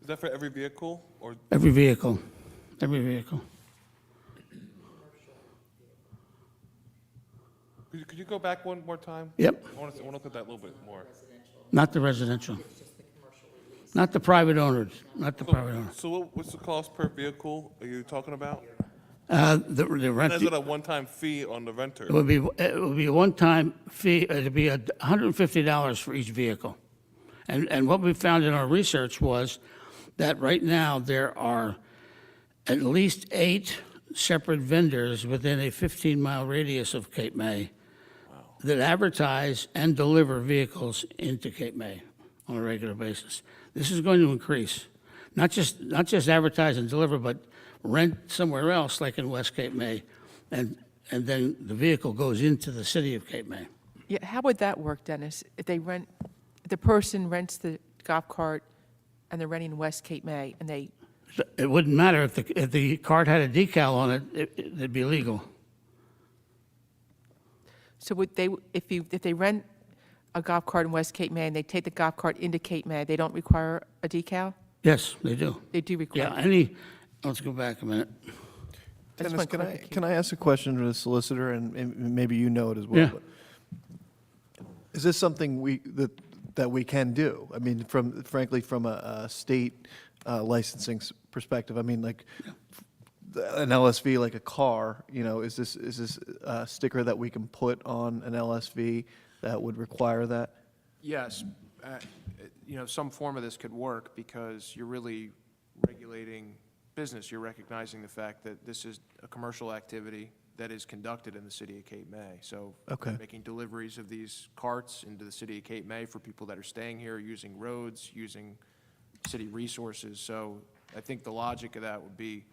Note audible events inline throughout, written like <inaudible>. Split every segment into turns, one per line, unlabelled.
Is that for every vehicle or
Every vehicle, every vehicle.
could you, could you go back one more time?
Yep,
I want to, I want to look at that a little bit more.
not the residential. Not the private owners, not the private owners.
So what, what's the cost per vehicle are you talking about?
Uh, The the rent,
That's not a one-time fee on the renter.
it would be, it would be a one-time fee, it'd be a $150 for each vehicle. And, and what we found in our research was that right now, there are at least eight separate vendors within a 15-mile radius of Cape May that advertise and deliver vehicles into Cape May on a regular basis. This is going to increase, not just, not just advertise and deliver, but rent somewhere else, like in West Cape May, and, and then the vehicle goes into the city of Cape May.
Yeah, how would that work, Dennis? If they rent, the person rents the golf cart and they're renting West Cape May and they,
So It wouldn't matter if the, if the cart had a decal on it, it- it'd be legal.
so would they, if you, if they rent a golf cart in West Cape May and they take the golf cart into Cape May, they don't require a decal?
Yes, they do.
They do require.
Yeah, any, let's go back a minute.
just
Dennis,
want
can I,
clarification.
can I ask a question to the solicitor, and and maybe you know it as well?
Yeah.
but Is this something we, that, that we can do? I mean, from, frankly, from a, a state uh, licensing s- perspective, I mean, like, the- an LSV, like a car, you know, is this, is this a sticker that we can put on an LSV that would require that?
Yes, uh, you know, some form of this could work because you're really regulating business. You're recognizing the fact that this is a commercial activity that is conducted in the city of Cape May. So
Okay.
making deliveries of these carts into the city of Cape May for people that are staying here, using roads, using city resources. So I think the logic of that would be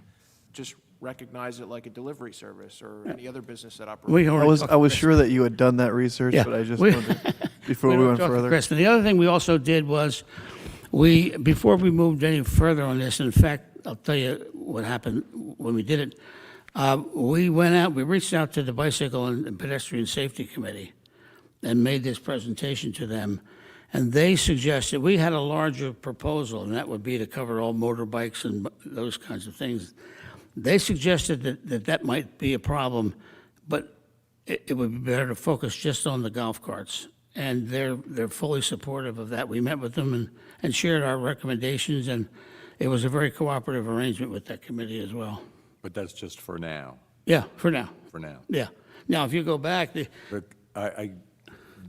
just recognize it like a delivery service or any other business that operates.
We
I
already
was,
talked <laughs>
I was sure that you had done that research,
Yeah,
but I just
we-
wondered,
<laughs>
before we
don't
went
talk to
further.
Chris. And the other thing we also did was, we, before we moved any further on this, in fact, I'll tell you what happened when we did it. Uh, We went out, we reached out to the Bicycle and Pedestrian Safety Committee and made this presentation to them. And they suggested, we had a larger proposal, and that would be to cover all motorbikes and those kinds of things. They suggested that, that that might be a problem, but it, it would be better to focus just on the golf carts. And they're, they're fully supportive of that. We met with them and, and shared our recommendations, and it was a very cooperative arrangement with that committee as well.
But that's just for now,
Yeah, for now,
for now.
yeah. Now, if you go back, the,
But I, I,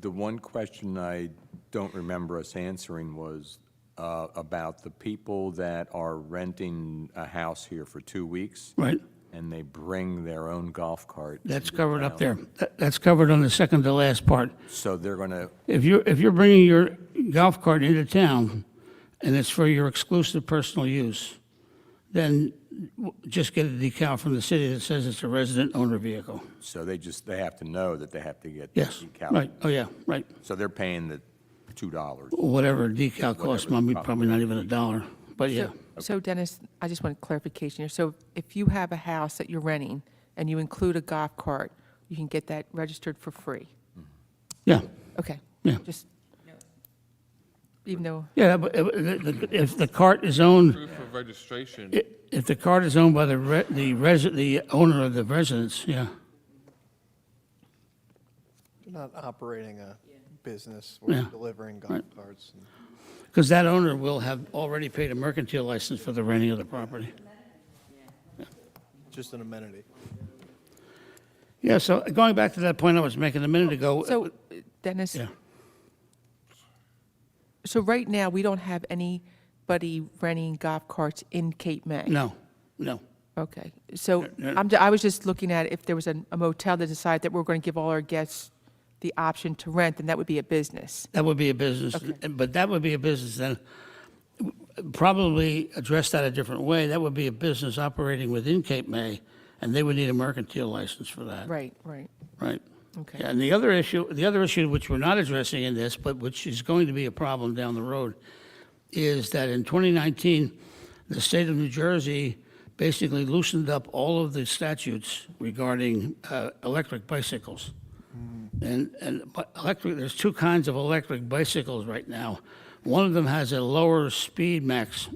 the one question I don't remember us answering was uh, about the people that are renting a house here for two weeks.
right,
And they bring their own golf cart.
that's covered up there. That- That's covered on the second to last part.
So they're going to,
If you're, if you're bringing your golf cart into town and it's for your exclusive personal use, then w- just get a decal from the city that says it's a resident owner vehicle.
so they just, they have to know that they have to get. the
Yes,
decal.
right, oh, yeah, right.
So they're paying the $2.
Whatever decal costs, maybe probably not even a dollar, but yeah.
So Dennis, I just want clarification here. So if you have a house that you're renting and you include a golf cart, you can get that registered for free?
Yeah,
Okay.
Yeah.
Just, even though,
yeah, but uh, the- the- if the cart is owned,
Proof of registration.
i- if the cart is owned by the re- the resident, the owner of the residence, yeah.
You're not operating a business,
Yeah.
we're delivering golf carts. and-
Because that owner will have already paid a mercantile license for the renting of the property.
Just an amenity.
Yeah, so going back to that point I was making a minute ago.
so Dennis,
uh, Yeah,
so right now, we don't have anybody renting golf carts in Cape May?
no, no.
Okay. So I'm, ju- I was just looking at if there was an- a motel that decided that we're going to give all our guests the option to rent, then that would be a business.
That would be a business, but that would be a business then, probably address that a different way. That would be a business operating within Cape May, and they would need a mercantile license for that.
Right, right.
Right.
Okay.
Yeah, And the other issue, the other issue which we're not addressing in this, but which is going to be a problem down the road, is that in 2019, the state of New Jersey basically loosened up all of the statutes regarding uh, electric bicycles. And, and bi- electric, there's two kinds of electric bicycles right now. One of them has a lower speed max,